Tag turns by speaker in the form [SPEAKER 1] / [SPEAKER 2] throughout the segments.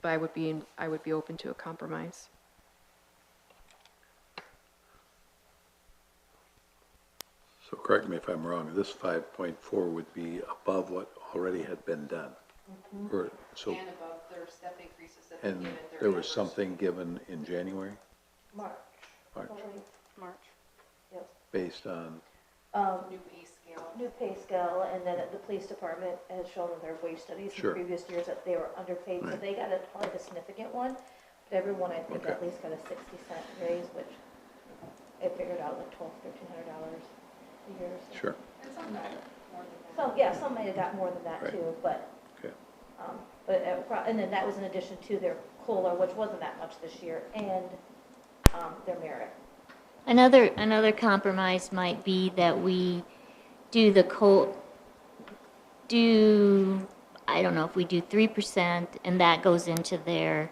[SPEAKER 1] but I would be, I would be open to a compromise.
[SPEAKER 2] So correct me if I'm wrong, this five point four would be above what already had been done. Or, so,
[SPEAKER 3] And above their step increases that they
[SPEAKER 2] and
[SPEAKER 3] give their.
[SPEAKER 2] there was
[SPEAKER 3] members.
[SPEAKER 2] something given in January,
[SPEAKER 4] March.
[SPEAKER 2] March,
[SPEAKER 5] March.
[SPEAKER 4] Yep.
[SPEAKER 2] based on,
[SPEAKER 4] Um,
[SPEAKER 3] New pay scale.
[SPEAKER 4] new pay scale, and then the police department has shown in their wage studies in
[SPEAKER 2] Sure.
[SPEAKER 4] previous years that they were underpaid, so
[SPEAKER 2] Right.
[SPEAKER 4] they got a, quite a significant one. But everyone, I think, at
[SPEAKER 2] Okay.
[SPEAKER 4] least got a sixty cent raise, which I figured out like twelve, thirteen hundred dollars a year. so.
[SPEAKER 2] sure,
[SPEAKER 3] And some got more than that.
[SPEAKER 4] So, yeah, some might have got more than that
[SPEAKER 2] Right.
[SPEAKER 4] too, but,
[SPEAKER 2] okay.
[SPEAKER 4] um, but, it pro- and then that was in addition to their COLA, which wasn't that much this year, and, um, their merit.
[SPEAKER 5] Another, another compromise might be that we do the co, do, I don't know if we do three percent, and that goes into their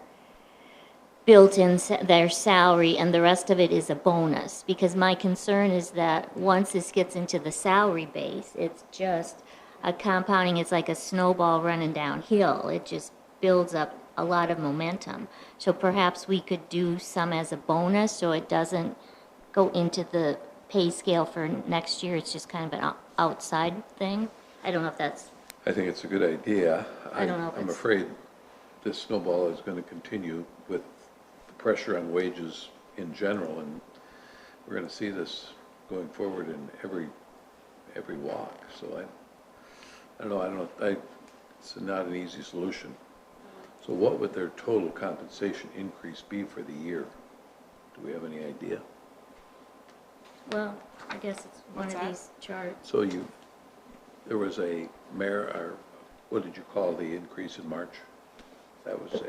[SPEAKER 5] built-in, sa- their salary, and the rest of it is a bonus. Because my concern is that once this gets into the salary base, it's just a compounding, it's like a snowball running downhill. It just builds up a lot of momentum. So perhaps we could do some as a bonus, so it doesn't go into the pay scale for next year. It's just kind of an o- outside thing. I don't know if that's,
[SPEAKER 2] I think it's a good idea.
[SPEAKER 5] I don't know if
[SPEAKER 2] I'm
[SPEAKER 5] it's-
[SPEAKER 2] afraid this snowball is gonna continue with the pressure on wages in general, and we're gonna see this going forward in every, every walk, so I, I don't know, I don't, I, it's not an easy solution. So what would their total compensation increase be for the year? Do we have any idea?
[SPEAKER 5] well, I guess it's one
[SPEAKER 6] What's
[SPEAKER 5] of
[SPEAKER 6] that?
[SPEAKER 5] these charts.
[SPEAKER 2] So you, there was a mayor, or what did you call the increase in March? That was a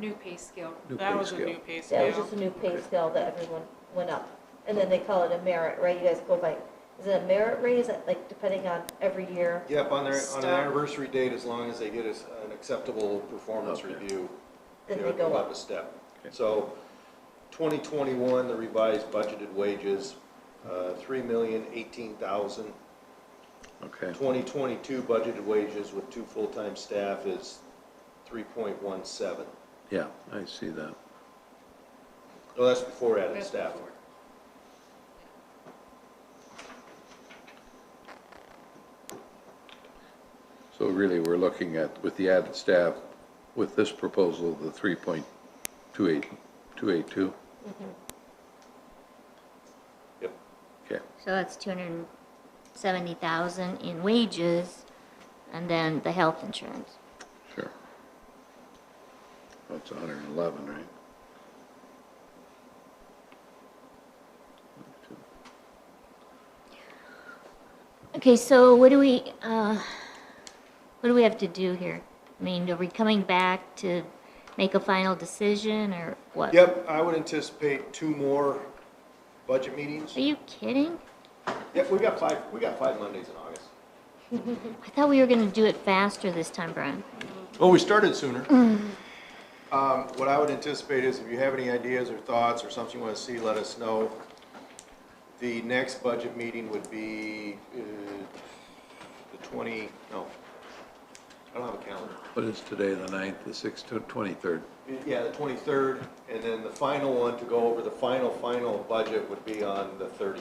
[SPEAKER 3] New pay scale.
[SPEAKER 2] new
[SPEAKER 6] That
[SPEAKER 2] pay
[SPEAKER 6] was a
[SPEAKER 2] scale.
[SPEAKER 6] new pay
[SPEAKER 4] That was
[SPEAKER 6] scale.
[SPEAKER 4] just a new pay scale that everyone went up. And then they call it a merit, right? You guys go by, is it a merit raise, like depending on every year?
[SPEAKER 7] Yep, on their, on
[SPEAKER 6] Stop.
[SPEAKER 7] an anniversary date, as long as they get us an acceptable performance
[SPEAKER 2] Okay.
[SPEAKER 7] review.
[SPEAKER 4] Then
[SPEAKER 7] they're
[SPEAKER 4] they go
[SPEAKER 7] a
[SPEAKER 4] up.
[SPEAKER 7] step.
[SPEAKER 2] Okay.
[SPEAKER 7] So, twenty twenty-one, the revised budgeted wages, uh, three million eighteen thousand.
[SPEAKER 2] Okay,
[SPEAKER 7] Twenty twenty-two budgeted wages with two full-time staff is three point one seven.
[SPEAKER 2] yeah, I see that.
[SPEAKER 7] Oh, that's before added
[SPEAKER 3] That's
[SPEAKER 7] staff.
[SPEAKER 3] before.
[SPEAKER 2] So really, we're looking at, with the added staff, with this proposal, the three point two eight, two eight two?
[SPEAKER 7] Yep.
[SPEAKER 2] Okay,
[SPEAKER 5] So that's two hundred and seventy thousand in wages, and then the health insurance.
[SPEAKER 2] sure. That's hundred and eleven, right?
[SPEAKER 5] Okay, so what do we, uh, what do we have to do here? I mean, are we coming back to make a final decision, or what?
[SPEAKER 7] Yep, I would anticipate two more budget meetings.
[SPEAKER 5] Are you kidding?
[SPEAKER 7] Yep, we got five, we got five Mondays in August.
[SPEAKER 5] I thought we were gonna do it faster this time, Brian.
[SPEAKER 7] Well, we started sooner. Um, What I would anticipate is if you have any ideas or thoughts or something you want to see, let us know. The next budget meeting would be uh, the 20, no, I don't have a calendar.
[SPEAKER 2] What is today, the ninth, the sixth, twenty-third?
[SPEAKER 7] Yeah, the 23rd, and then the final one to go over the final, final budget would be on the 30th.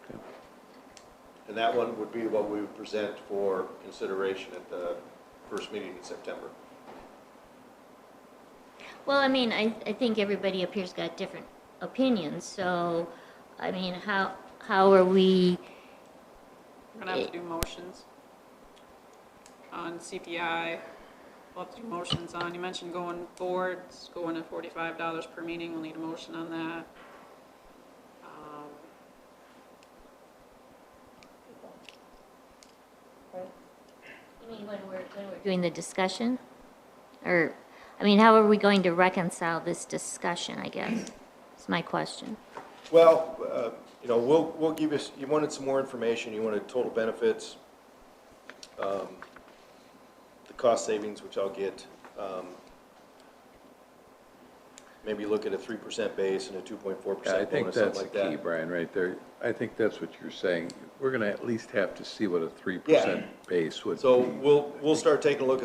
[SPEAKER 2] Okay.
[SPEAKER 7] And that one would be what we would present for consideration at the first meeting in September.
[SPEAKER 5] Well, I mean, I, I think everybody up here's got different opinions, so, I mean, how, how are we,
[SPEAKER 6] We're gonna have to do motions on CPI. We'll have to do motions on, you mentioned going boards, going to forty-five dollars per meeting, we'll need a motion on that. Um,
[SPEAKER 5] you mean, when we're, when we're doing the discussion? Or, I mean, how are we going to reconcile this discussion, I guess, is my question.
[SPEAKER 7] Well, uh, you know, we'll, we'll give you, s- you wanted some more information, you wanted total benefits, um, the cost savings, which I'll get, um, maybe look at a three percent base and a two point four
[SPEAKER 2] Yeah, I
[SPEAKER 7] percent
[SPEAKER 2] think
[SPEAKER 7] bonus, something
[SPEAKER 2] that's the
[SPEAKER 7] like
[SPEAKER 2] key,
[SPEAKER 7] that.
[SPEAKER 2] Brian, right there. I think that's what you're saying. We're gonna at least have to see what a three
[SPEAKER 7] Yeah.
[SPEAKER 2] percent base would be.
[SPEAKER 7] So we'll, we'll start taking a look at